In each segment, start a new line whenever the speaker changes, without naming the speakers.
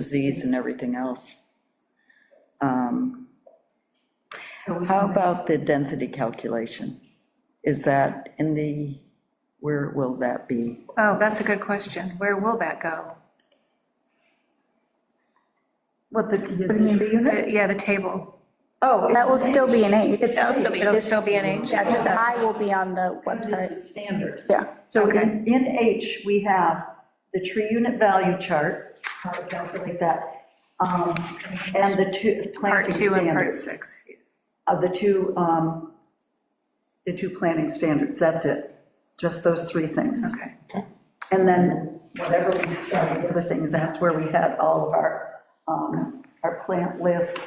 disease and everything else.
So
How about the density calculation? Is that in the, where will that be?
Oh, that's a good question. Where will that go?
What, the, the three unit?
The- Uh, Yeah, the table.
Oh,
That will still be an H.
It's-
That'll still be-
It'll still be an H.
Yeah, just I will be on the
it's- this
website,
is standard.
yeah.
So in, in H, we have the tree unit value chart, how to calculate that, um, and the two
Part
planting
two and part
standards.
six.
Of the two, um, the two planting standards, that's it, just those three things.
Okay.
And then whatever we decide, the other things, that's where we had all of our, um, our plant lists.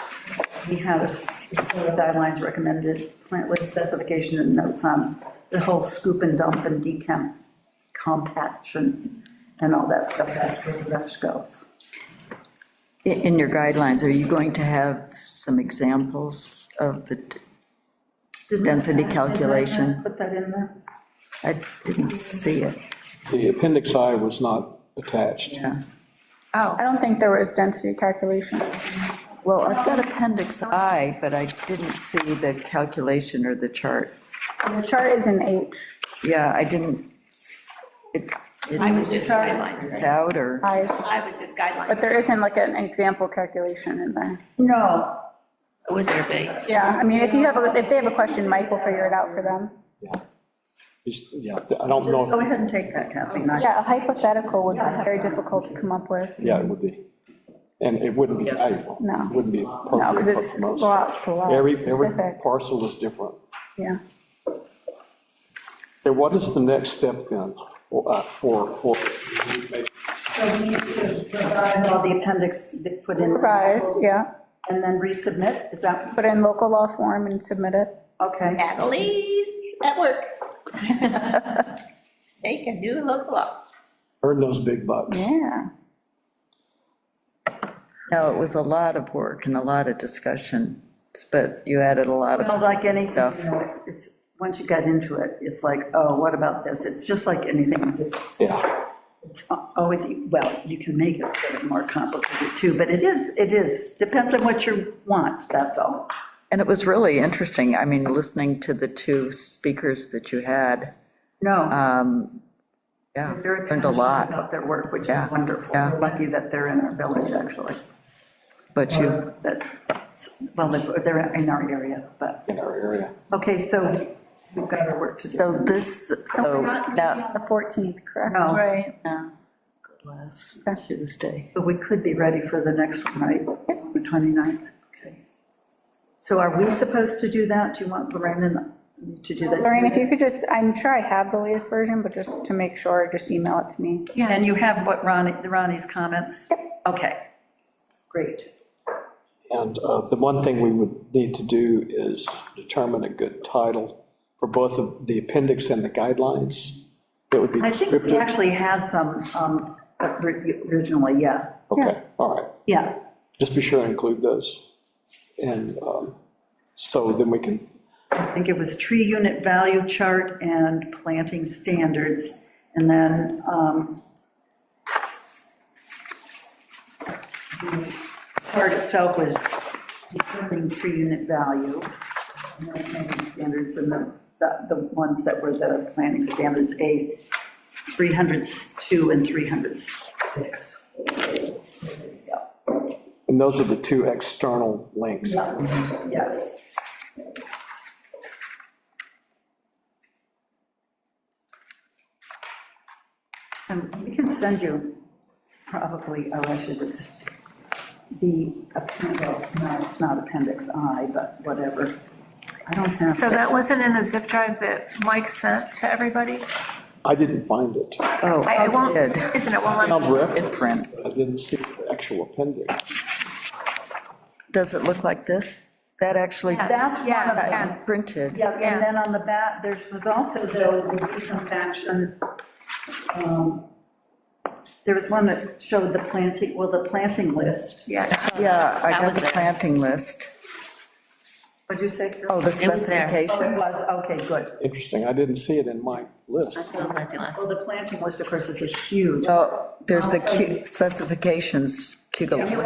We had a s- set of guidelines recommended, plant list specification and notes on the whole scoop and dump and decamp compaction and all that stuff, that's where the rest goes.
I- In your guidelines, are you going to have some examples of the,
Didn't-
Density
didn't I
calculation.
Put that in there?
I didn't see it,
The appendix I was not attached.
yeah.
Oh,
I don't think there was density calculation.
Well, I've got appendix I, but I didn't see the calculation or the chart.
The chart is an H.
Yeah, I didn't, s- it, it
I was just guidelines,
was out, or,
I-
I was just guidelines.
But there isn't like an example calculation in there.
No,
Would there be?
Yeah, I mean, if you have, a if they have a question, Mike will figure it out for them.
Yeah. Just- Yeah, I don't
just go
know,
ahead and take that, Kathleen. I-
Yeah, a hypothetical would be very difficult to come up with.
yeah, it would be. And it wouldn't be, I, it
No.
wouldn't be
No,
appropriate
because it's
for most.
lots, a lot
Every, every
specific,
parcel is different.
yeah.
And what is the next step then, uh, for, for,
So we need to revise all the appendix that put in.
Revise, yeah,
And then resubmit, is that
put in local law form and submit it.
Okay,
Natalie's at work. They can do local law.
earn those big bucks?
Yeah.
no, it was a lot of work and a lot of discussion, but you added a lot of.
well, like anything,
Stuff.
you know, it's, once you get into it, it's like, oh, what about this? It's just like anything, it's,
Yeah,
it's always, well, you can make it a little bit more complicated too, but it is, it is, depends on what you want, that's all.
And it was really interesting, I mean, listening to the two speakers that you had,
No,
yeah,
they're very
Uh, learned a
passionate
lot,
about their work, which is
Yeah,
wonderful.
yeah.
We're lucky that they're in our village, actually.
but you,
That, well, they- they're in our area, but,
in our area.
okay, so we've got our work to do.
so this, so, now,
The 14th, correct?
No.
right.
last
Okay.
Tuesday.
But we could be ready for the next one, right? The 29th? Okay. So are we supposed to do that? Do you want Lorraine and to do that?
Lorraine, if you could just, I'm sure I have the latest version, but just to make sure, just email it to me.
Yeah.
And you have what Ronnie, the Ronnie's comments? Okay, great.
And uh, the one thing we would need to do is determine a good title for both of the appendix and the guidelines. It would be
I think we
descriptive.
actually had some um, originally, yeah,
Okay, all right.
yeah.
just be sure to include those. And um, so then we can,
I think it was tree unit value chart and planting standards, and then um, the chart itself was determining tree unit value, and then planting standards, and the, the- the ones that were the planting standards, A, 302 and 306.
and those are the two external links.
Yeah, Yes. And Um, we can send you probably, oh, I should just, the, append- well, no, it's not appendix I, but whatever. I don't have.
So that wasn't in the zip drive that Mike sent to everybody?
I didn't find it.
Oh,
I, it won't,
did.
isn't it, won't let me-
Found reference,
Different.
but I didn't see the actual appendix.
Does it look like this? That actually
Yes,
That's one
yeah,
of them.
yeah.
printed,
Yeah,
Yeah.
and then on the back, there was also though the deconfection. um, There was one that showed the planting, well, the planting list.
Yeah.
yeah, I
That
got
was
the
it.
planting list.
What'd you say,
Oh,
Carol?
the
It was there.
Oh, it
specifications?
was, okay, good.
Interesting, I didn't see it in my list.
That's what I'm gonna do last.
Well, the planting list, of course, is a huge.
Oh, there's the cu- specifications, cute little.